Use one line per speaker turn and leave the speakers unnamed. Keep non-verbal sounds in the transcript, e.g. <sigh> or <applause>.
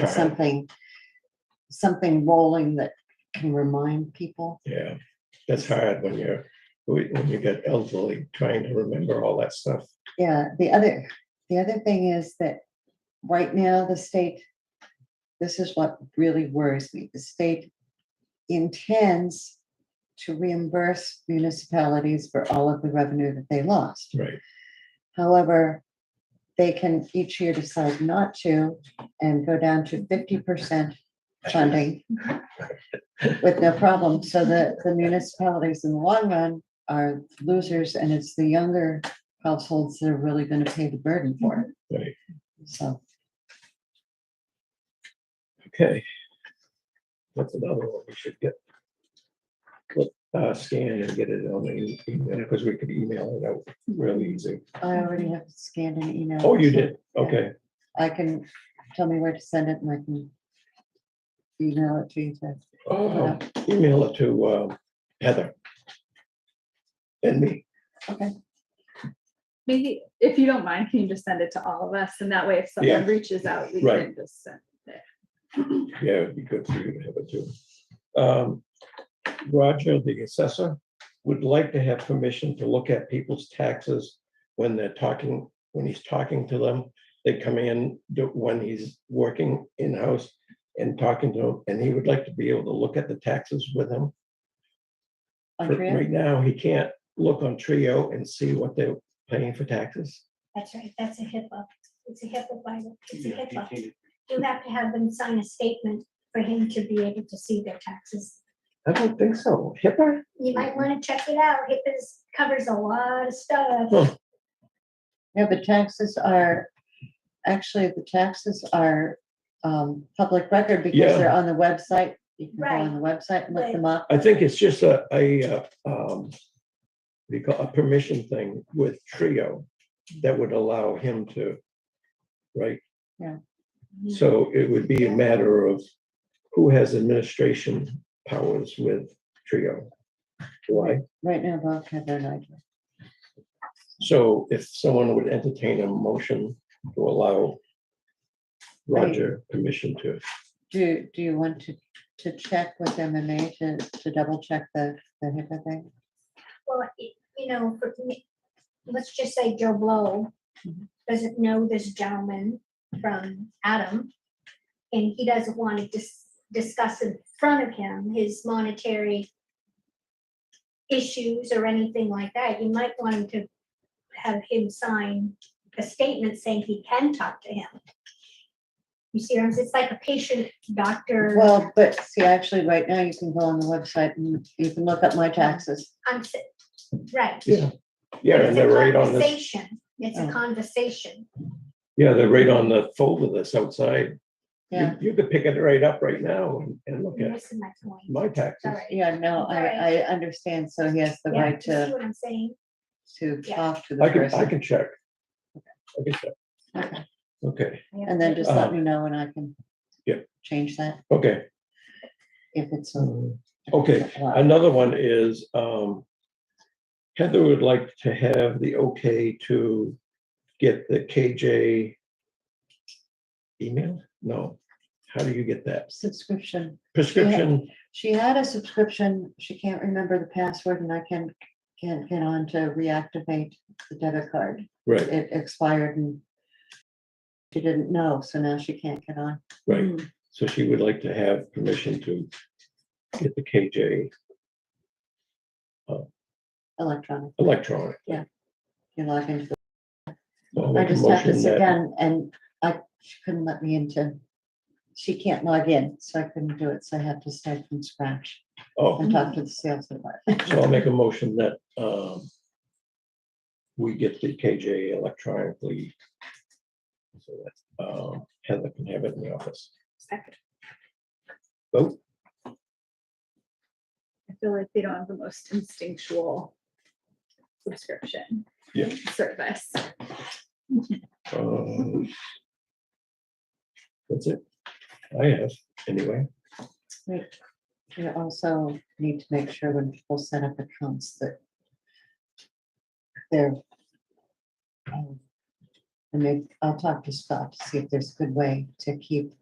but something, something rolling that can remind people.
Yeah, that's hard when you're, when when you get elderly, trying to remember all that stuff.
Yeah, the other, the other thing is that right now the state, this is what really worries me, the state intends to reimburse municipalities for all of the revenue that they lost.
Right,
However, they can each year decide not to and go down to fifty percent
<laughs>
funding with no problem. So the, the municipalities in the long run are losers and it's the younger households that are really going to pay the burden for it.
right.
So,
Okay. That's another one we should get. Clip, uh, scan and get it on the e, email, because we could email it out really easy.
I already have scanned an email.
Oh, you did? Okay,
I can, tell me where to send it and I can email it to you. to-
Uh, email it to uh, Heather. And me.
Maybe, if you don't mind, can you just send it to all of us? And that way, if
Yeah.
someone reaches out, we
Right.
can just send.
Yeah, it'd be good for you to have it too. Um, Roger, the assessor, would like to have permission to look at people's taxes when they're talking, when he's talking to them. They come in, do- when he's working in-house and talking to him, and he would like to be able to look at the taxes with him. For-
Andrea?
Right now, he can't look on Trio and see what they're paying for taxes.
That's right, that's a HIPAA, it's a HIPAA, bylaw. it's a
Yeah, he
HIPAA.
can't-
You have to have them sign a statement for him to be able to see their taxes.
I don't think so. HIPAA?
You might want to check it out, HIPAA covers a lot of stuff.
Huh.
Yeah, the taxes are, actually, the taxes are um, public record because
Yeah.
they're on the website. You can go on the website and look
Right.
them up.
I think it's just a, a, uh, um, what do you call- a permission thing with Trio that would allow him to, right?
Yeah.
Mm-hmm.
So it would be a matter of who has administration powers with Trio. Why?
Right now, Bob had their idea.
So if someone would entertain a motion to allow Roger permission to,
Do, do you want to, to check with MMA to, to double check the, the HIPAA thing?
Well, it- you know, for me, let's just say Joe Blow doesn't know this gentleman from Adam. And he doesn't want to dis- discuss in front of him his monetary issues or anything like that. You might want him to have him sign a statement saying he can talk to him. You see, what I'm saying? it's like a patient doctor.
Well, but see, actually, right now, you can go on the website and you can look up my taxes.
I'm s- Right.
yeah, yeah, and
It's a
they're right on this,
conversation. It's
Oh.
a conversation.
yeah, they're right on the folder that's outside. You-
Yeah,
You could pick it right up right now and, and look
You're
at
missing my point.
my taxes.
Sorry.
yeah, no, I, I
Right.
understand. So he has the
Yeah,
right uh,
you See
to,
what I'm saying?
to
Yeah.
talk to the
I can, I
person.
can check. I can check.
Okay.
Okay,
And then just let
Uh,
me know and I can.
yeah.
Change that
okay.
if it's. a- if it's
Okay,
allowed.
Another one is, um, Heather would like to have the okay to get the KJ email? No, how do you get that?
Subscription.
Prescription,
She had a subscription. She can't remember the password and I can, can't get on to reactivate the debit card.
right,
It expired and she didn't know, so now she can't get on.
right.
Mm-hmm.
So she would like to have permission to get the KJ
Electronic.
electronic.
You log into, the-
So I'll
I
make a
just have to
motion
sit
that-
down and I, she couldn't let me into. She can't log in, so I couldn't do it. So I had to start from scratch
Oh,
and talk to the sales department.
So I'll make a motion that um, we get the KJ electronically. So that um, Heather can have it in the office.
Second.
Vote.
I feel like they don't have the most instinctual subscription.
Yeah.
Service.
Um, That's it. I have, anyway.
You also need to make sure when people set up accounts that they're. um, I mean, I'll talk to Scott to see if there's a good way to keep